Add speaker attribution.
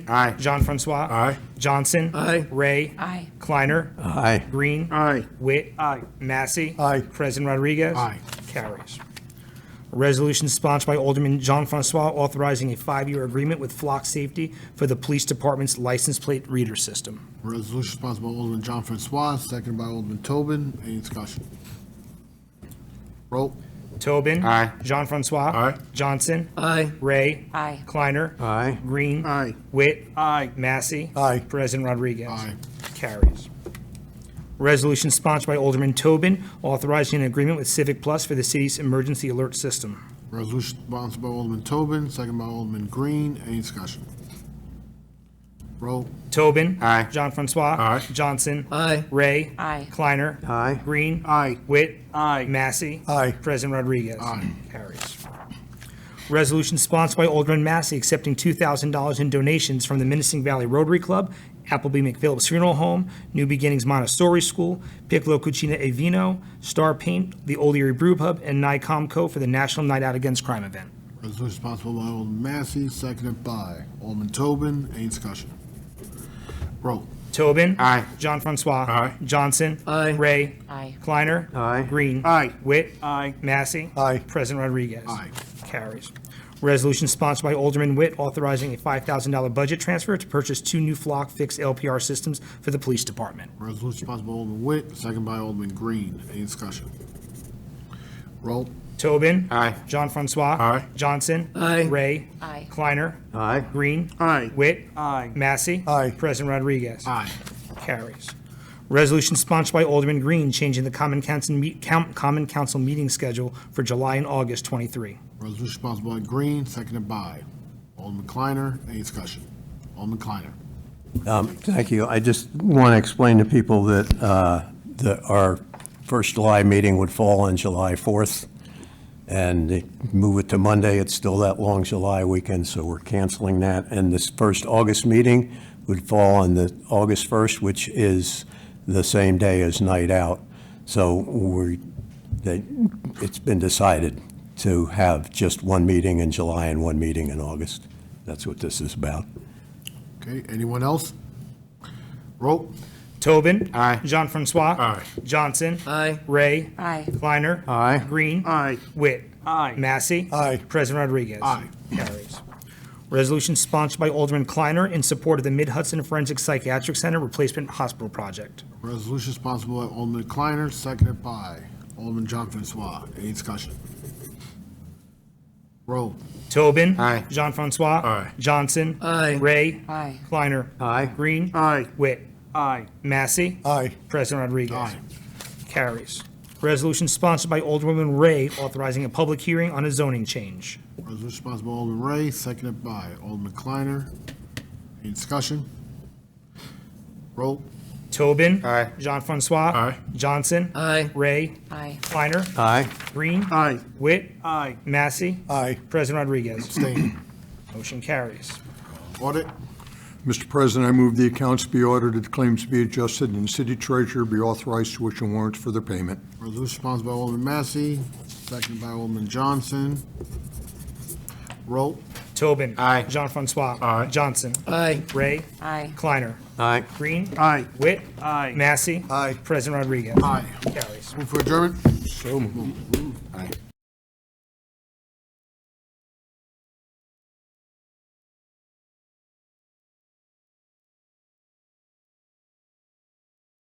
Speaker 1: Aye.
Speaker 2: Jean Francois.
Speaker 1: Aye.
Speaker 2: Johnson.
Speaker 3: Aye.
Speaker 2: Ray.
Speaker 4: Aye.
Speaker 2: Kleiner.
Speaker 3: Aye.
Speaker 2: Green.
Speaker 1: Aye.
Speaker 2: Witt. Aye. Massey.
Speaker 3: Aye.
Speaker 2: President Rodriguez.
Speaker 1: Aye.
Speaker 2: Carries. Resolution sponsored by Alderman Jean Francois authorizing a five-year agreement with Flock Safety for the Police Department's license plate reader system.
Speaker 1: Resolution sponsored by Alderman John Francois, seconded by Alderman Tobin. Any discussion? Roll.
Speaker 2: Tobin.
Speaker 1: Aye.
Speaker 2: Jean Francois.
Speaker 1: Aye.
Speaker 2: Johnson.
Speaker 3: Aye.
Speaker 2: Ray.
Speaker 4: Aye.
Speaker 2: Kleiner.
Speaker 3: Aye.
Speaker 2: Green.
Speaker 1: Aye.
Speaker 2: Witt. Aye. Massey.
Speaker 3: Aye.
Speaker 2: President Rodriguez.
Speaker 1: Aye.
Speaker 2: Carries. Resolution sponsored by Alderman Tobin authorizing an agreement with Civic Plus for the city's emergency alert system.
Speaker 1: Resolution sponsored by Alderman Tobin, seconded by Alderman Green. Any discussion? Roll.
Speaker 2: Tobin.
Speaker 1: Aye.
Speaker 2: John Francois.
Speaker 1: Aye.
Speaker 2: Johnson.
Speaker 3: Aye.
Speaker 2: Ray.
Speaker 4: Aye.
Speaker 2: Kleiner.
Speaker 3: Aye.
Speaker 2: Green.
Speaker 1: Aye.
Speaker 2: Witt. Aye. Massey.
Speaker 3: Aye.
Speaker 2: President Rodriguez.
Speaker 1: Aye.
Speaker 2: Carries. Resolution sponsored by Alderman Massey accepting $2,000 in donations from the Menacing Valley Rotary Club, Appleby McPhillips Funeral Home, New Beginnings Montessori School, Piccolo Cucina e Vino, Star Paint, the Old Erie Brew Pub, and NICOMCO for the National Night Out Against Crime event.
Speaker 1: Resolution sponsored by Alderman Massey, seconded by Alderman Tobin. Any discussion? Roll.
Speaker 2: Tobin.
Speaker 1: Aye.
Speaker 2: Jean Francois.
Speaker 1: Aye.
Speaker 2: Johnson.
Speaker 3: Aye.
Speaker 2: Ray.
Speaker 4: Aye.
Speaker 2: Kleiner.
Speaker 3: Aye.
Speaker 2: Green.
Speaker 1: Aye.
Speaker 2: Witt. Aye. Massey.
Speaker 3: Aye.
Speaker 2: President Rodriguez.
Speaker 1: Aye.
Speaker 2: Carries. Resolution sponsored by Alderman Witt authorizing a $5,000 budget transfer to purchase two new Flock fixed LPR systems for the police department.
Speaker 1: Resolution sponsored by Alderman Witt, seconded by Alderman Green. Any discussion? Roll.
Speaker 2: Tobin.
Speaker 3: Aye.
Speaker 2: John Francois.
Speaker 1: Aye.
Speaker 2: Johnson.
Speaker 3: Aye.
Speaker 2: Ray.
Speaker 4: Aye.
Speaker 2: Kleiner.
Speaker 3: Aye.
Speaker 2: Green.
Speaker 1: Aye.
Speaker 2: Witt. Aye. Massey.
Speaker 3: Aye.
Speaker 2: President Rodriguez.
Speaker 1: Aye.
Speaker 2: Carries. Resolution sponsored by Alderman Green changing the common council, meet- count- common council meeting schedule for July and August 23.
Speaker 1: Resolution sponsored by Green, seconded by Alderman Kleiner. Any discussion? Alderman Kleiner.
Speaker 3: Um, Thank you. I just want to explain to people that, uh, that our first July meeting would fall on July 4th, and they move it to Monday. It's still that long July weekend, so we're canceling that. And this first August meeting would fall on the August 1st, which is the same day as Night Out. So we, they, it's been decided to have just one meeting in July and one meeting in August. That's what this is about.
Speaker 1: Okay, anyone else? Roll.
Speaker 2: Tobin.
Speaker 3: Aye.
Speaker 2: Jean Francois.
Speaker 1: Aye.
Speaker 2: Johnson.
Speaker 3: Aye.
Speaker 2: Ray.
Speaker 4: Aye.
Speaker 2: Kleiner.
Speaker 3: Aye.
Speaker 2: Green.
Speaker 1: Aye.
Speaker 2: Witt. Aye. Massey.
Speaker 3: Aye.
Speaker 2: President Rodriguez.
Speaker 1: Aye.
Speaker 2: Carries. Resolution sponsored by Alderman Kleiner in support of the Mid Hudson Forensic Psychiatric Center Replacement Hospital Project.
Speaker 1: Resolution sponsored by Alderman Kleiner, seconded by Alderman John Francois. Any discussion? Roll.
Speaker 2: Tobin.
Speaker 3: Aye.
Speaker 2: Jean Francois.
Speaker 1: Aye.
Speaker 2: Johnson.
Speaker 3: Aye.
Speaker 2: Ray.
Speaker 4: Aye.
Speaker 2: Kleiner.
Speaker 3: Aye.
Speaker 2: Green.
Speaker 1: Aye.
Speaker 2: Witt. Aye. Massey.
Speaker 3: Aye.
Speaker 2: President Rodriguez.
Speaker 1: Aye.
Speaker 2: Carries. Resolution sponsored by Alderwoman Ray authorizing a public hearing on a zoning change.
Speaker 1: Resolution sponsored by Alderman Ray, seconded by Alderman Kleiner. Any discussion? Roll.
Speaker 2: Tobin. Aye. Jean Francois.
Speaker 1: Aye.
Speaker 2: Johnson.
Speaker 3: Aye.
Speaker 2: Ray.
Speaker 4: Aye.
Speaker 2: Kleiner.
Speaker 3: Aye.
Speaker 2: Green.
Speaker 1: Aye.
Speaker 2: Witt. Aye. Massey.
Speaker 3: Aye.
Speaker 2: President Rodriguez.
Speaker 1: Abstain.
Speaker 2: Motion carries.
Speaker 1: Audit.
Speaker 5: Mr. President, I move the accounts be audited, claims be adjusted, and the city treasurer be authorized to issue warrants for their payment.
Speaker 1: Resolution sponsored by Alderman Massey, seconded by Alderman Johnson. Roll.
Speaker 2: Tobin. Aye. Jean Francois. Aye. Johnson.
Speaker 3: Aye.
Speaker 2: Ray.
Speaker 4: Aye.
Speaker 2: Kleiner.
Speaker 3: Aye.
Speaker 2: Green.
Speaker 1: Aye.
Speaker 2: Witt. Aye. Massey.
Speaker 3: Aye.
Speaker 2: President Rodriguez.
Speaker 1: Aye.
Speaker 2: Carries.
Speaker 1: Move for adjournment?
Speaker 5: So moved.
Speaker 1: Aye.